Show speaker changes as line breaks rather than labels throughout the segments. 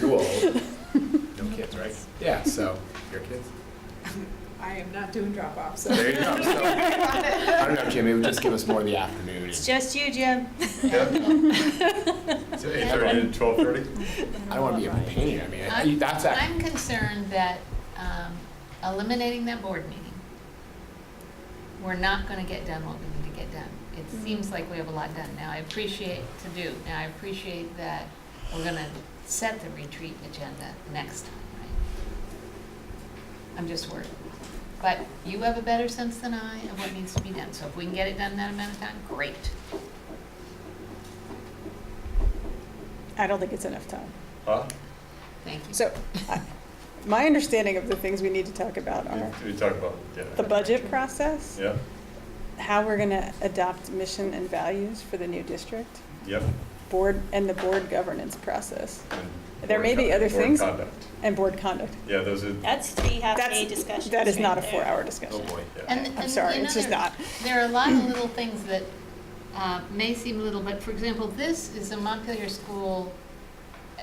too old. No kids, right? Yeah, so, your kids?
I am not doing drop off, so.
There you go. So, I don't know, Jim, it would just give us more of the afternoon.
It's just you, Jim.
So 8:30 to 12:30? I don't want to be a pain, I mean, I-
I'm-
that's actually,
I'm concerned that um, eliminating that board meeting, we're not going to get done what we need to get done. It
Mm-hmm.
seems like we have a lot done now. I appreciate to do. Now, I appreciate that we're going to set the retreat agenda next time, right? I'm just worried. But you have a better sense than I of what needs to be done. So if we can get it done in that amount of time, great.
I don't think it's enough time.
Huh?
Thank you.
So, I- my understanding of the things we need to talk about are
We talk about, yeah.
the budget process,
Yeah,
how we're gonna adopt mission and values for the new district,
yep.
board, and the board governance process,
and
There may
board
be
con-
other
board
things.
conduct.
and board conduct.
Yeah, those are,
That's three half-day
That's,
discussions.
that is not a
right there.
four-hour
oh
discussion.
boy.
yeah.
And-
I'm
and,
sorry,
you know,
it's just
there-
not.
There are a lot of little things that uh, may seem little, but for example, this is a Montpelier School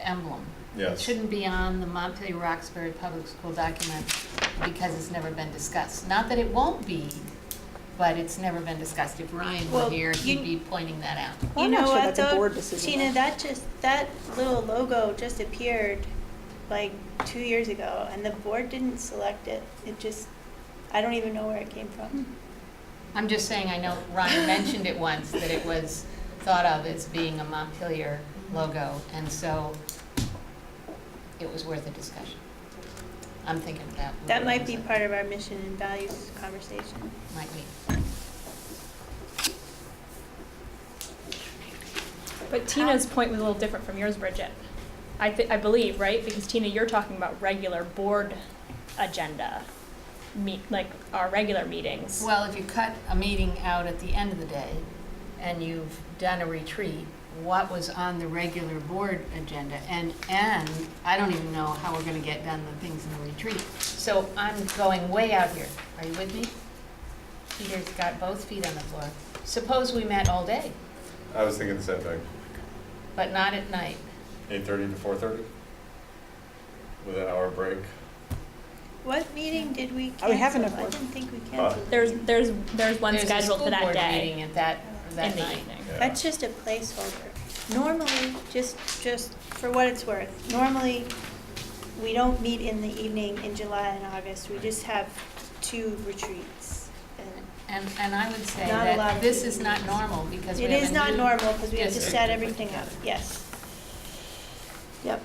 emblem. It
Yes.
shouldn't be on the Montpelier Roxbury Public School document because it's never been discussed. Not that it won't be, but it's never been discussed. If Ryan were
Well,
here, he'd
you-
be pointing that out.
Well, I'm
You know
not sure
what,
that's a board
though,
decision,
Tina,
though.
that just, that little logo just appeared like two years ago, and the board didn't select it. It just, I don't even know where it came from.
I'm just saying, I know Ryan mentioned it once, that it was thought of as being a Montpelier logo, and so it was worth a discussion. I'm thinking that. would
That might be
represent-
part of our mission and values conversation.
Might be.
But Tina's point was a little different from yours, Bridget. I, th- I believe, right? Because Tina, you're talking about regular board agenda, meet like our regular meetings.
Well, if you cut a meeting out at the end of the day and you've done a retreat, what was on the regular board agenda? And, and I don't even know how we're gonna get done the things in the retreat. So I'm going way out here. Are you with me? Peter's got both feet on the floor. Suppose we met all day,
I was thinking the same thing.
but not at night.
Eight thirty to four thirty? With an hour break.
What meeting did we
Oh,
cancel?
we haven't
I
approved.
didn't think we canceled.
there's there's there's one
There's a
scheduled for
school
that
board
day
meeting at that,
in
that
the
night.
evening.
Yeah.
That's just a placeholder. Normally, just, just for what it's worth, normally, we don't meet in the evening in July and August. We just have two retreats. and
And, and I would say
Not a lot
that
of
this is
meetings.
not normal because we
It
have a
is not
new-
normal because we have to
Yes.
set everything up, yes. Yep.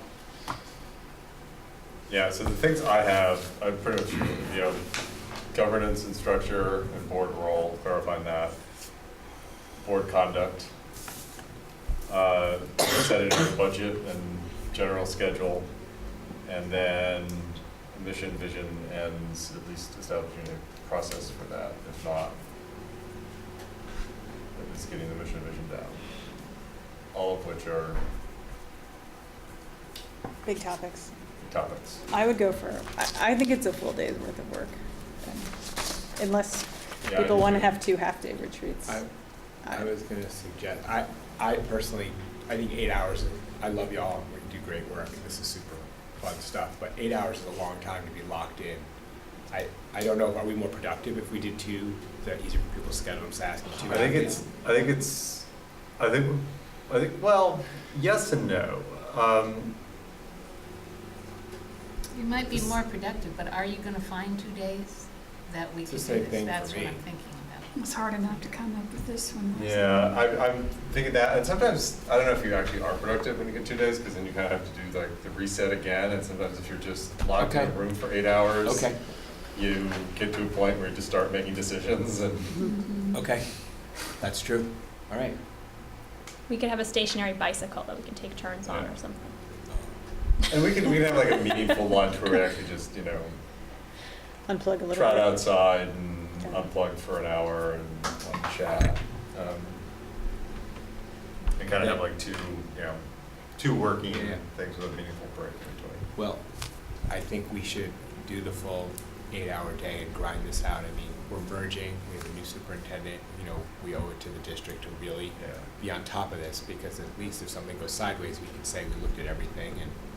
Yeah, so the things I have, I pretty much, you know, governance and structure and board role, clarifying that, board conduct, uh, setting the budget and general schedule, and then mission, vision, and s- at least establishing a process for that, if not, at least getting the mission, vision down. All of which are
Big topics.
topics.
I would go for, I, I think it's a full day's worth of work. um, Unless
Yeah, I
people wanna
agree.
have two half-day retreats.
I,
I-
I was gonna suggest, I, I personally, I think eight hours, I love y'all, we do great work, this is super fun stuff, but eight hours is a long time to be locked in. I, I don't know, are we more productive if we did two, is that easier for people's schedules, asking two?
I think it's, I think it's, I think, I think, well, yes and no. Um,
You might be more productive, but are you gonna find two days that we
It's
could do
the
this?
same thing for
That's what
me.
I'm thinking about.
It was hard enough to come up with this one. wasn't it?
yeah, I, I'm thinking that, and sometimes, I don't know if you actually are productive when you get two days, because then you kind of have to do like the reset again, and sometimes if you're just locked in a
Okay.
room for eight hours,
Okay,
you get to a point where you just start making decisions, and
okay, that's true, all right.
We could have a stationary bicycle that we can take turns on
Yeah.
or something.
and we can, we can have like a meaningful lunch where we actually just, you know,
Unplug a little bit.
trot outside and
Okay.
unplug for an hour and um, chat. um, And kind of have like two, you know, two working
Yeah.
things with a meaningful break in
Well, I think we should do the full eight-hour day and grind this out. I mean, we're merging, we have a new superintendent, you know, we owe it to the district to really
between. Yeah.
be on top of this, because at least if something goes sideways, we can say we looked at everything and